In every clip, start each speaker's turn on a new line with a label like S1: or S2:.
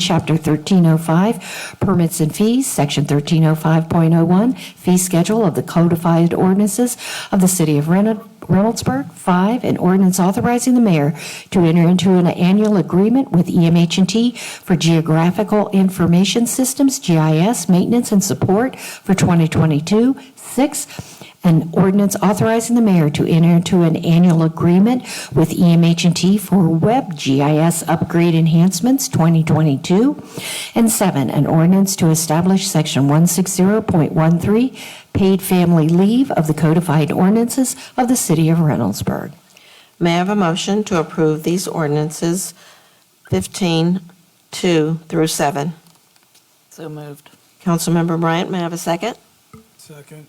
S1: Chapter 1305, Permits and Fees, Section 1305.01, Fee Schedule of the Codified Ordinances of the City of Reyno- Reynoldsburg. Five, an ordinance authorizing the mayor to enter into an annual agreement with E EMH&T for Geographical Information Systems, GIS, maintenance and support for 2022. Six, an ordinance authorizing the mayor to enter into an annual agreement with E EMH&T for Web GIS Upgrade Enhancements 2022. And seven, an ordinance to establish Section 160.13, Paid Family Leave of the Codified Ordinances of the City of Reynoldsburg.
S2: May I have a motion to approve these ordinances 15, 2 through 7?
S3: So moved.
S2: Councilmember Bryant, may I have a second?
S4: Second.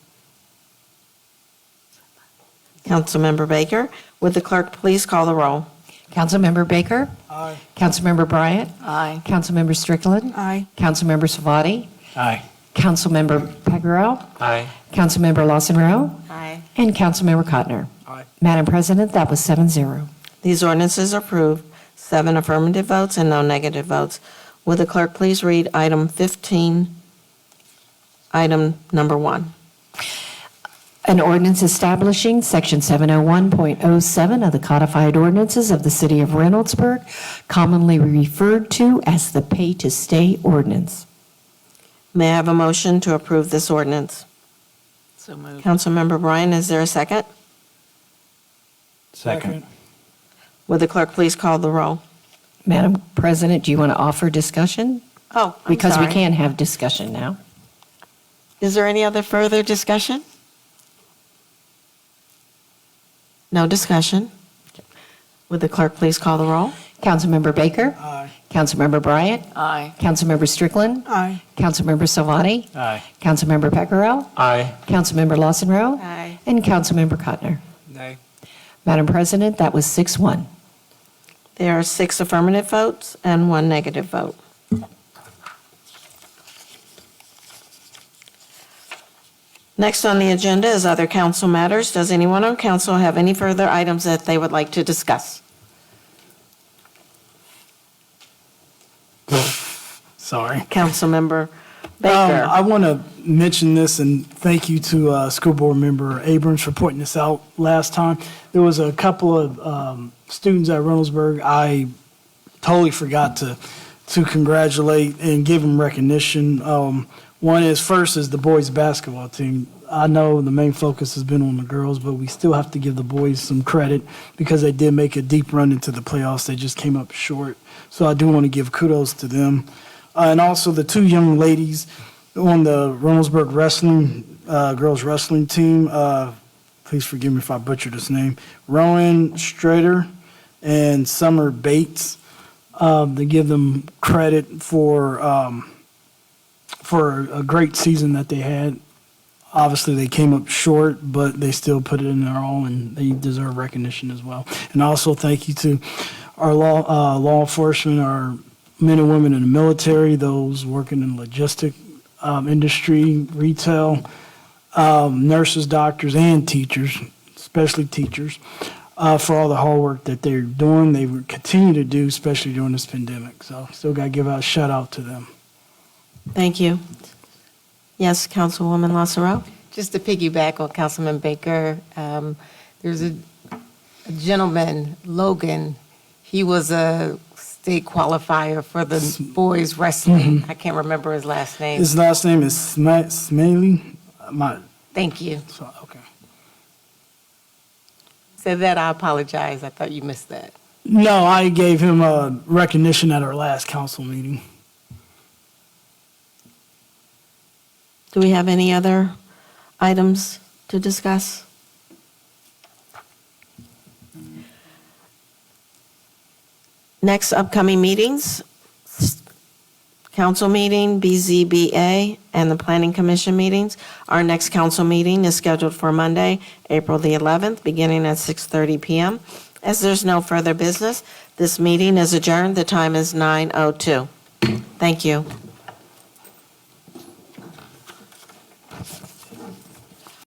S2: Councilmember Baker, would the clerk please call the roll?
S1: Councilmember Baker?
S4: Aye.
S1: Councilmember Bryant?
S3: Aye.
S1: Councilmember Strickland?
S3: Aye.
S1: Councilmember Savati?
S4: Aye.
S1: Councilmember Pagarel?
S4: Aye.
S1: Councilmember Lawson Rowe?
S2: Aye.
S1: And Councilmember Cotner.
S4: Aye.
S1: Madam President, that was seven zero.
S2: These ordinances are approved, seven affirmative votes and no negative votes. Would the clerk please read item 15, item number 1?
S1: An ordinance establishing Section 701.07 of the codified ordinances of the City of Reynoldsburg, commonly referred to as the pay-to-stay ordinance.
S2: May I have a motion to approve this ordinance?
S3: So moved.
S2: Councilmember Bryant, is there a second?
S4: Second.
S2: Would the clerk please call the roll?
S1: Madam President, do you want to offer discussion?
S2: Oh, I'm
S1: Because we
S2: sorry.
S1: can have discussion now.
S2: Is there any other further discussion? No discussion. Would the clerk please call the roll?
S1: Councilmember Baker?
S4: Aye.
S1: Councilmember Bryant?
S3: Aye.
S1: Councilmember Strickland?
S2: Aye.
S1: Councilmember Salvati?
S4: Aye.
S1: Councilmember Pacquiao?
S4: Aye.
S1: Councilmember Lawson Rowe?
S2: Aye.
S1: And Councilmember Cotner.
S4: Nay.
S1: Madam President, that was 6-1.
S2: There are six affirmative votes and one negative vote. Next on the agenda is other council matters. Does anyone on council have any further items that they would like to discuss?
S4: Sorry.
S2: Councilmember oh,
S4: Um, I
S2: Baker.
S4: want to mention this and thank you to uh, School Board Member Abrams for pointing this out last time. There was a couple of um, students at Reynoldsburg I totally forgot to to congratulate and give them recognition. Um, one is first is the boys basketball team. I know the main focus has been on the girls, but we still have to give the boys some credit because they did make a deep run into the playoffs. They just came up short, so I do want to give kudos to them, uh, and also the two young ladies on the Reynoldsburg wrestling uh, girls wrestling team. Uh, please forgive me if I butchered his name. Rowan Strader and Summer Bates um, to give them credit for um, for a great season that they had. Obviously, they came up short, but they still put it in their all, and they deserve recognition as well. And also, thank you to our law uh, law enforcement, our men and women in the military, those working in logistic um, industry, retail, um, nurses, doctors, and teachers, especially teachers, uh, for all the hard work that they're doing. They will continue to do, especially during this pandemic. So, still got to give out a shout out to them.
S2: Thank you. Yes, Councilwoman Lassaro?
S5: Just to piggyback on Councilman Baker, um, there's a a gentleman, Logan, he was a state qualifier for the boys wrestling. I can't remember his last name.
S4: His last name is Sma- Smaley. My,
S5: Thank you.
S4: so, okay.
S5: Said that, I apologize. I thought you missed that.
S4: No, I gave him uh, recognition at our last council meeting.
S2: Do we have any other items to discuss? Next upcoming meetings, council meeting, BZBA, and the Planning Commission meetings. Our next council meeting is scheduled for Monday, April the 11th, beginning at 6:30 PM. As there's no further business, this meeting is adjourned. The time is 9:02. Thank you.